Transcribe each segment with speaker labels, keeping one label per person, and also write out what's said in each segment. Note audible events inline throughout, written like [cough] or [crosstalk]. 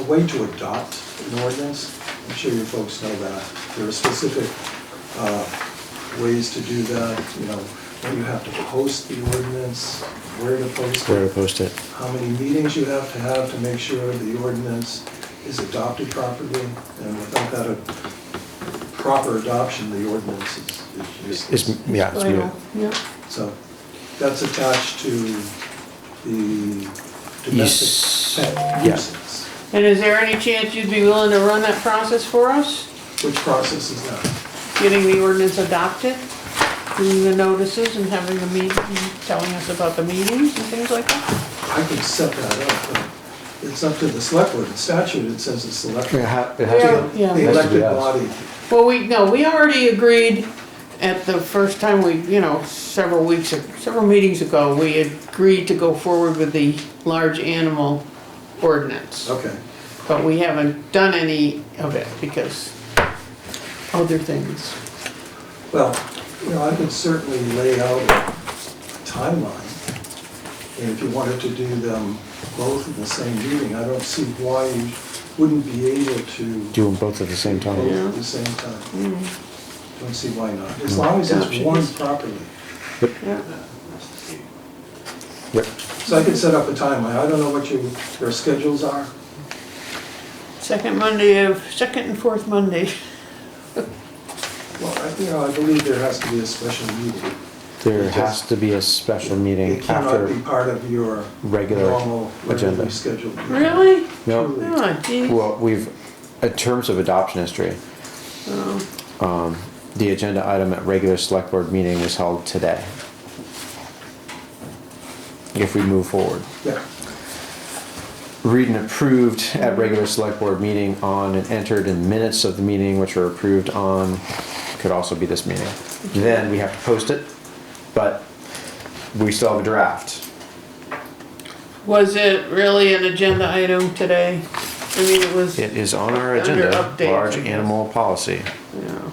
Speaker 1: a way to adopt an ordinance. I'm sure you folks know that. There are specific uh, ways to do that, you know, when you have to post the ordinance, where to post
Speaker 2: Where
Speaker 1: it,
Speaker 2: to post it.
Speaker 1: how many meetings you have to have to make sure the ordinance is adopted properly, and without that uh, proper adoption, the ordinance is- is
Speaker 2: It's,
Speaker 1: useless.
Speaker 2: yeah, it's moot.
Speaker 3: Yeah.
Speaker 1: So that's attached to the
Speaker 2: Yes.
Speaker 1: domestic pet
Speaker 2: Yeah.
Speaker 1: nuisance.
Speaker 3: And is there any chance you'd be willing to run that process for us?
Speaker 1: Which process is that?
Speaker 3: Getting the ordinance adopted, doing the notices and having the meeting, telling us about the meetings and things like that?
Speaker 1: I can set that up, but it's up to the select board. In statute, it says it's select.
Speaker 2: It ha- it has to be-
Speaker 3: Yeah.
Speaker 1: The
Speaker 2: Has to be
Speaker 1: elected
Speaker 2: us.
Speaker 1: body.
Speaker 3: Well, we, no, we already agreed at the first time we, you know, several weeks, or several meetings ago, we agreed to go forward with the large animal ordinance.
Speaker 1: Okay,
Speaker 3: But we haven't done any of it because other things.
Speaker 1: well, you know, I could certainly lay out a timeline. And if you wanted to do them both in the same meeting, I don't see why you wouldn't be able to do
Speaker 2: Do them both at the same
Speaker 1: both
Speaker 2: time.
Speaker 1: at the same time. Don't see why not, as long as it's warned properly.
Speaker 3: Yeah.
Speaker 2: Yep.
Speaker 1: So I could set up a timeline. I don't know what your, your schedules are.
Speaker 3: Second Monday of, second and fourth Monday. [laughs]
Speaker 1: Well, I, you know, I believe there has to be a special meeting.
Speaker 2: There has to be a special meeting
Speaker 1: It cannot be
Speaker 2: after,
Speaker 1: part of your
Speaker 2: regular
Speaker 1: normal, regularly
Speaker 2: agenda.
Speaker 1: scheduled. meeting.
Speaker 3: Really?
Speaker 2: no,
Speaker 3: Oh, geez.
Speaker 2: well, we've, in terms of adoption history, um, the agenda item at regular select board meeting was held today. If we move forward.
Speaker 1: Yeah,
Speaker 2: Read and approved at regular select board meeting on and entered in minutes of the meeting which are approved on, could also be this meeting. Then we have to post it, but we still have a draft.
Speaker 3: Was it really an agenda item today? I mean, it was,
Speaker 2: It is on our
Speaker 3: Under
Speaker 2: agenda,
Speaker 3: update.
Speaker 2: large animal policy,
Speaker 3: yeah.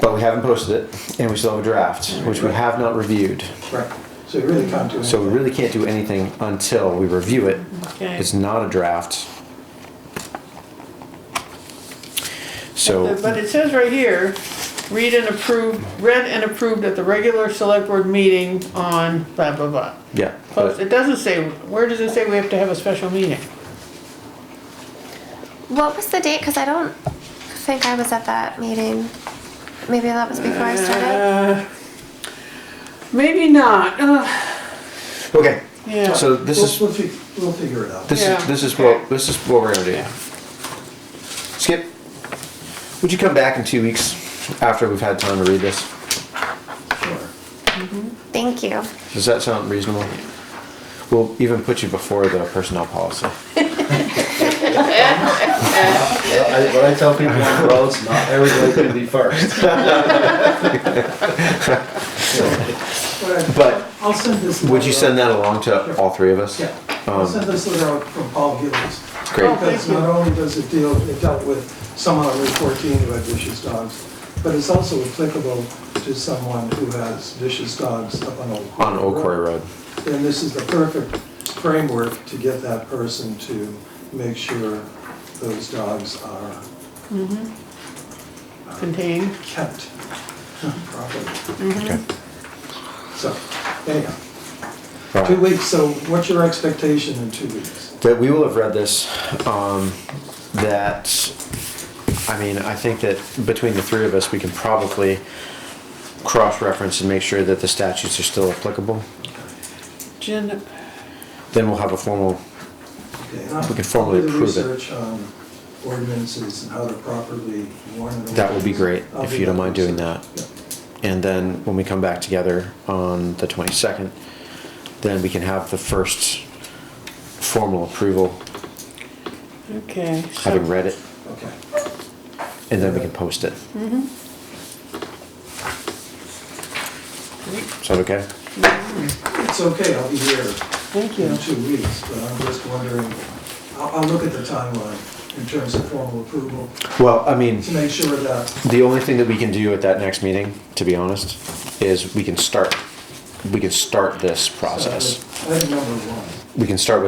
Speaker 2: but we haven't posted it and we still have a draft, which we have not reviewed.
Speaker 1: right. So you really can't do anything.
Speaker 2: So we really can't do anything until we review it.
Speaker 3: Okay.
Speaker 2: It's not a draft. So.
Speaker 3: But it says right here, read and approve, read and approved at the regular select board meeting on blah, blah, blah.
Speaker 2: Yeah,
Speaker 3: Post,
Speaker 2: but
Speaker 3: it doesn't say, where does it say we have to have a special meeting?
Speaker 4: What was the date? Because I don't think I was at that meeting. Maybe that was before I started.
Speaker 3: Uh, Maybe not, Ugh,
Speaker 2: okay.
Speaker 3: yeah.
Speaker 2: So this
Speaker 1: We'll-
Speaker 2: is
Speaker 1: We'll, fi- we'll figure it out.
Speaker 2: this
Speaker 3: Yeah.
Speaker 2: is this is what this is what we're gonna do. Skip, would you come back in two weeks after we've had time to read this?
Speaker 1: Sure.
Speaker 4: Thank you.
Speaker 2: Does that sound reasonable? We'll even put you before the personnel policy.
Speaker 5: I, what I tell people on roads, not everybody can be first.
Speaker 1: But
Speaker 2: But
Speaker 1: I- I'll send this.
Speaker 2: would you
Speaker 1: letter
Speaker 2: send that along to all three of us?
Speaker 1: out. Yeah, I'll send this letter out from Paul Gillis.
Speaker 3: Oh,
Speaker 2: Um, Great.
Speaker 3: thank
Speaker 1: Because
Speaker 3: you.
Speaker 1: not only does it deal, it dealt with someone on Route 14 who had vicious dogs, but it's also applicable to someone who has vicious dogs up on Old Quarry.
Speaker 2: On Old Quarry Road.
Speaker 1: Then this is the perfect framework to get that person to make sure those dogs are
Speaker 3: Contained.
Speaker 1: kept [laughs] properly.
Speaker 2: Okay.
Speaker 1: So anyhow,
Speaker 2: All
Speaker 1: two
Speaker 2: right.
Speaker 1: weeks, so what's your expectation in two weeks?
Speaker 2: That we will have read this, um, that, I mean, I think that between the three of us, we can probably cross-reference and make sure that the statutes are still applicable.
Speaker 3: Agenda,
Speaker 2: Then we'll have a formal,
Speaker 1: Okay, and I'll-
Speaker 2: We can formally
Speaker 1: I'll do the
Speaker 2: approve it.
Speaker 1: Research on ordinances and how to properly warn. an
Speaker 2: that would be great,
Speaker 1: ordinance. I'll
Speaker 2: if
Speaker 1: do
Speaker 2: you don't mind doing
Speaker 1: research.
Speaker 2: that.
Speaker 1: Yeah.
Speaker 2: And then when we come back together on the 22nd, then we can have the first formal approval,
Speaker 3: okay. so-
Speaker 2: having read it,
Speaker 1: Okay.
Speaker 2: and then we can post it. Is that okay?
Speaker 1: It's okay, I'll be here
Speaker 3: Thank you.
Speaker 1: in two weeks, but I'm just wondering, I'll, I'll look at the timeline in terms of formal approval
Speaker 2: Well, I mean,
Speaker 1: to make sure that, uh,
Speaker 2: the only thing that we can do at that next meeting, to be honest, is we can start, we can start this process.
Speaker 1: item number one.
Speaker 2: We can start with